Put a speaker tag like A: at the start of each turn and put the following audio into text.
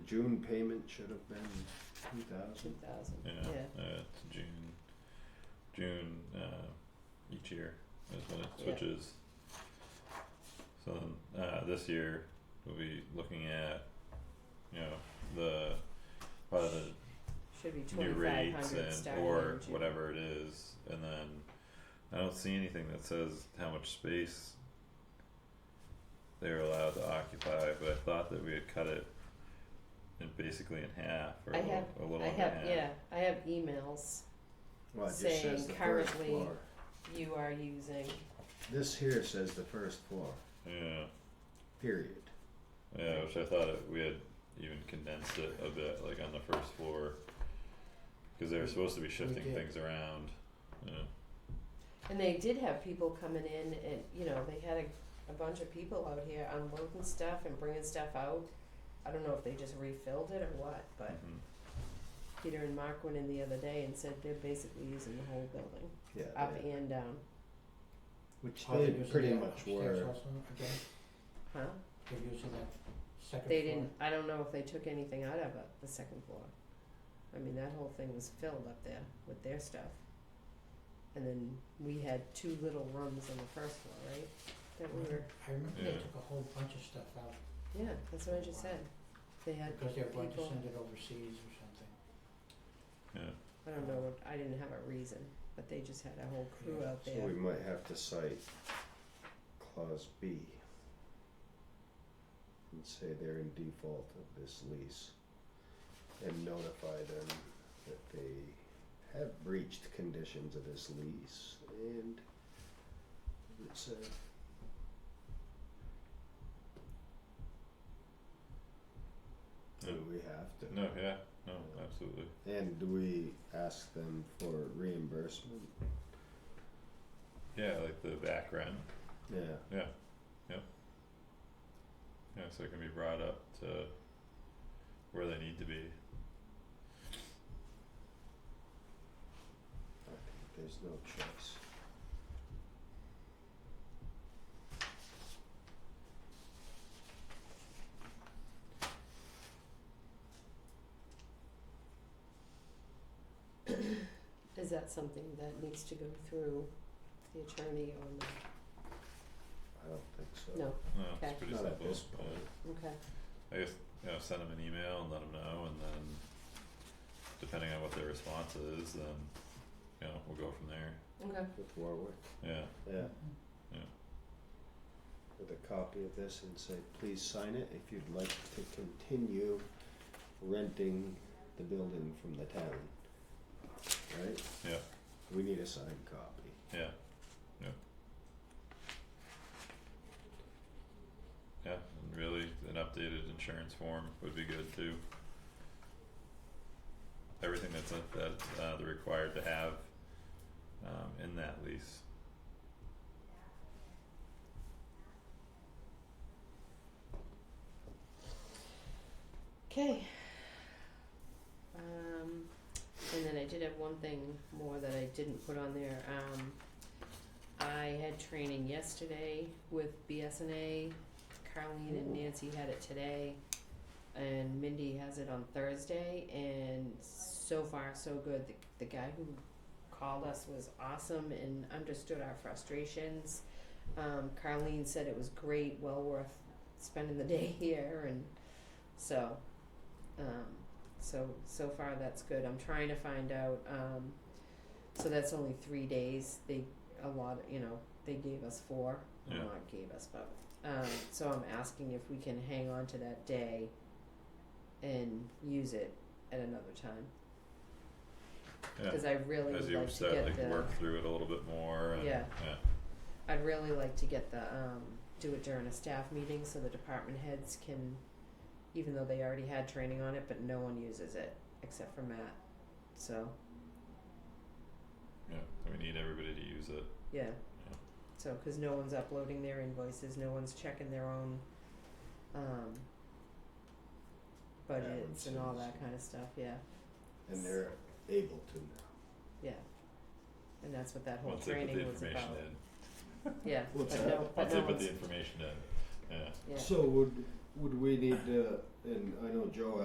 A: June payment should have been two thousand.
B: two thousand,
C: Yeah,
B: yeah.
C: uh, it's June, June, uh, each year is when it
B: Yeah.
C: switches. So then, uh, this year, we'll be looking at, you know, the, probably the
B: Should be
C: new
B: twenty-five
C: rates
B: hundred
C: and
B: starting
C: or
B: in June.
C: whatever it is, and then I don't see anything that says how much space they're allowed to occupy, but I thought that we had cut it in basically in half or a
B: I
C: little,
B: have-
C: a little
B: I
C: under half.
B: have, yeah, I have emails
A: Well, it just
B: Saying
A: says the first
B: currently-
A: floor.
B: you are using,
A: This here says the first floor,
C: Yeah,
A: period.
C: yeah, which I thought it, we had even condensed it a bit, like on the first floor, cause they were supposed to be shifting
A: did.
C: things around, yeah,
B: and they did have people coming in and, you know, they had a, a bunch of people out here unloading stuff and bringing stuff out. I don't know if they just refilled it or what, but
C: mhm.
B: Peter and Mark went in the other day and said they're basically using the whole building,
A: Yeah,
B: up
A: they-
B: and down,
A: which
D: Are they
A: they
D: using
A: pretty
D: that
A: much
D: upstairs
A: were.
D: also again?
B: huh?
D: They're using that second
B: They
D: floor?
B: didn't, I don't know if they took anything out of it, the second floor. I mean, that whole thing was filled up there with their stuff. And then we had two little rooms on the first floor, right? That we were,
D: I remember they
C: Yeah.
D: took a whole bunch of stuff out
B: yeah, that's what I just said. They had
D: because they were going to
B: people-
D: send it overseas or something.
B: I don't know, what- I didn't have a reason, but they just had a whole crew
D: Yeah,
B: out
A: So
B: there.
A: we might have to cite clause B and say they're in default of this lease and notify them that they have breached conditions of this lease and it's a Do we have to?
C: No, yeah, no, absolutely.
A: And do we ask them for reimbursement?
C: Yeah, like the back rent.
A: Yeah.
C: Yeah, so it can be brought up to where they need to be.
A: I think There's no choice.
B: Is that something that needs to go through the attorney or not?
A: I don't think so.
B: No,
C: No,
B: Okay.
C: it's pretty
A: Not
C: simple.
A: at this point.
C: yeah.
B: okay,
C: I guess, you know, send them an email and let them know and then depending on what their response is, then, you know, we'll go from there.
B: okay,
A: With Warwick,
C: Yeah,
A: yeah.
B: Mm-hmm.
C: Yeah.
A: With a copy of this and say, please sign it if you'd like to continue renting the building from the town. Right?
C: Yeah.
A: We need a signed copy.
C: yeah, yeah. Yeah, and really, an updated insurance form would be good too. Everything that's uh, that uh they're required to have um in that lease.
B: okay. Um, and then I did have one thing more that I didn't put on there, um, I had training yesterday with BSNA, Carlene and Nancy had it today, and Mindy has it on Thursday, and so far, so good, the, the guy who called us was awesome and understood our frustrations. Um, Carlene said it was great, well worth spending the day here, and so, um, so, so far, that's good, I'm trying to find out, um, so that's only three days, they, a lot, you know, they gave us four,
C: Yeah.
B: well, not gave us, but, um, so I'm asking if we can hang on to that day and use it at another time,
C: Yeah.
B: cause I really
C: As
B: would
C: you
B: like to
C: said,
B: get
C: like
B: the,
C: work through it a little bit more and, yeah,
B: Yeah. I'd really like to get the, um, do it during a staff meeting so the department heads can, even though they already had training on it, but no one uses it except for Matt, so,
C: yeah, we need everybody to use it,
B: yeah.
C: Yeah.
B: So, cause no one's uploading their invoices, no one's checking their own, um, budgets and all that
A: Balances.
B: kind of stuff, yeah,
A: And they're able to now.
B: yeah. And that's what that whole
C: once they put the
B: training was
C: information in.
B: about, yeah, but
A: What's
B: no,
A: that?
B: but
C: Once
B: no
C: they put
B: one's,
C: the information in, yeah.
B: yeah.
A: So would, would we need to, and I know Joe